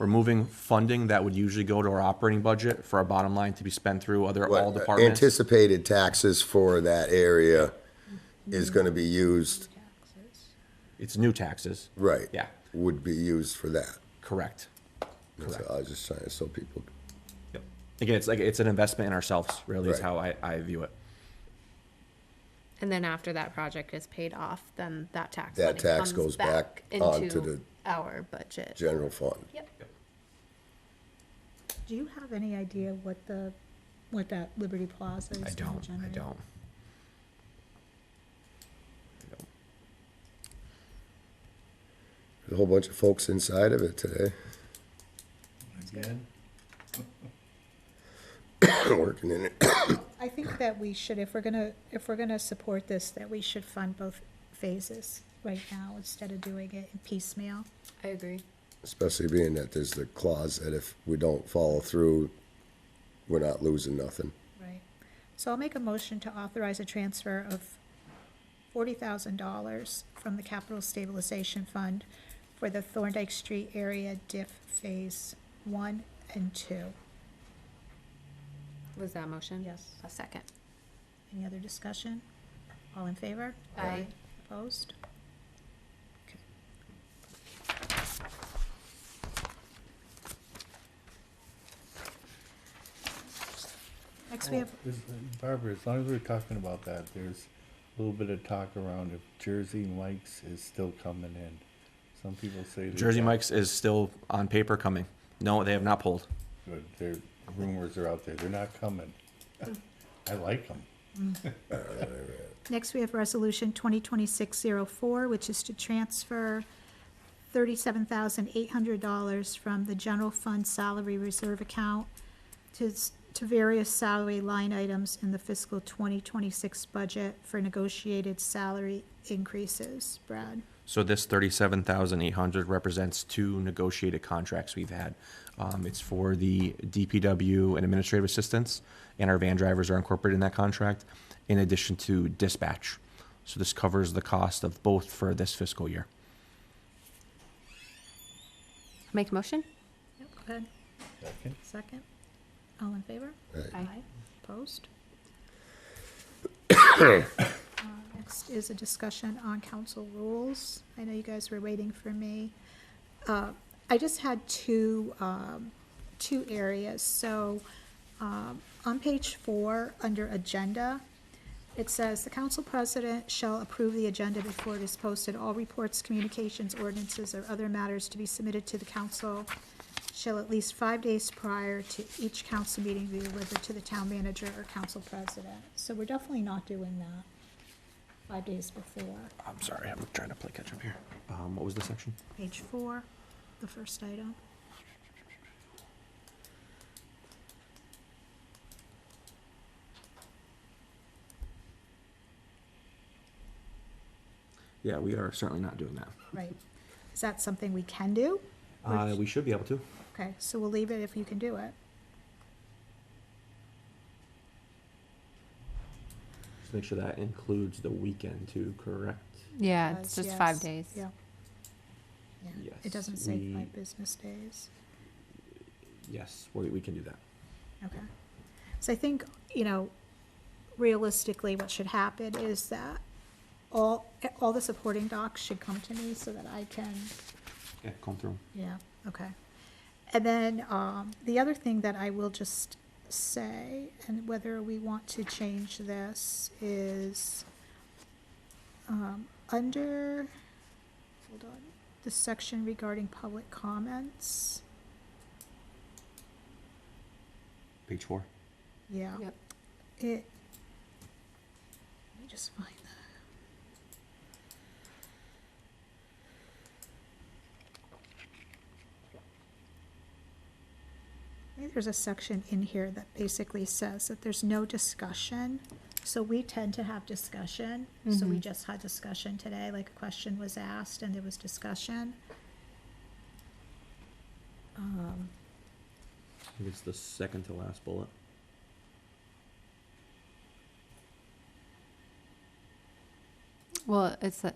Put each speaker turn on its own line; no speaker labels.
Removing funding that would usually go to our operating budget for our bottom line to be spent through other all
What uh,
departments.
Anticipated taxes for that area is gonna be used,
It's new taxes.
right?
Yeah.
Would be used for that.
Correct.
That's- I was just trying, so people,
Yep. Again, it's like, it's an investment in ourselves, really is
Right.
how I, I view it.
And then after that project is paid off, then that tax.
That
money
tax
comes
goes back onto
into
the-
Our budget.
general fund.
Yep.
Do you have any idea what the, what that Liberty Plaza is?
I
gonna
don't, I
generate?
don't.
A whole bunch of folks inside of it today,
Again?
working in it.
I think that we should, if we're gonna, if we're gonna support this, that we should fund both phases right now instead of doing it in piecemeal.
I agree.
Especially being that there's the clause that if we don't follow through, we're not losing nothing.
Right. So I'll make a motion to authorize a transfer of forty thousand dollars from the Capital Stabilization Fund for the Thorndike Street area diff phase one and two.
Was that a motion?
Yes.
A second.
Any other discussion? All in favor?
Aye.
Opposed? Okay. Next, we have,
Is- Barbara, as long as we're talking about that, there's a little bit of talk around if Jersey Mike's is still coming in. Some people say. they
Jersey
don't,
Mike's is still on paper coming. No, they have not pulled.
but Their rumors are out there. They're not coming.
Mm.
I like them.
next we have Resolution 2026-04, which is to transfer $37,800 from the general fund salary reserve account to, s- to various salary line items in the fiscal 2026 budget for negotiated salary increases. Brad?
So this thirty-seven thousand eight hundred represents two negotiated contracts we've had. Um, it's for the DPW and administrative assistants, and our van drivers are incorporated in that contract, in addition to dispatch. So this covers the cost of both for this fiscal year.
Make a motion?
Yep, go ahead.
Second?
Second. All in favor?
Right.
Aye.
Opposed? Uh, Next is a discussion on council rules. I know you guys were waiting for me. Uh, I just had two, um, two areas. So um, on page four, under agenda, it says, "The council president shall approve the agenda before it is posted. All reports, communications, ordinances, or other matters to be submitted to the council shall at least five days prior to each council meeting be delivered to the town manager or council president. So we're definitely not doing that five days before.
I'm sorry, I'm trying to play catch up here. Um, what was the section?
Page four, the first item.
Yeah, we are certainly not doing that.
Right. Is that something we can do?
Uh, we should be able to.
Okay, so we'll leave it if you can do it.
Just make sure that includes the weekend too, correct?
Yeah,
Uh, Yes,
it's just five
yes,
days.
Yeah. Yeah,
Yes,
it doesn't say
we-
five business days.
Yes, we, we can do that.
Okay. So I think, you know, realistically, what should happen is that all, all the supporting docs should come to me so that I can,
Yeah, come through.
yeah, okay. And then, um, the other thing that I will just say, and whether we want to change this, is, um, under, hold on, the section regarding public comments,
Page four.
yeah.
Yep.
It. Let me just find that. I think there's a section in here that basically says that there's no discussion. So we tend to have discussion. So we just had discussion today, like a question was asked and there was discussion. Um,
I think it's the second to last bullet.
Well, it's, a-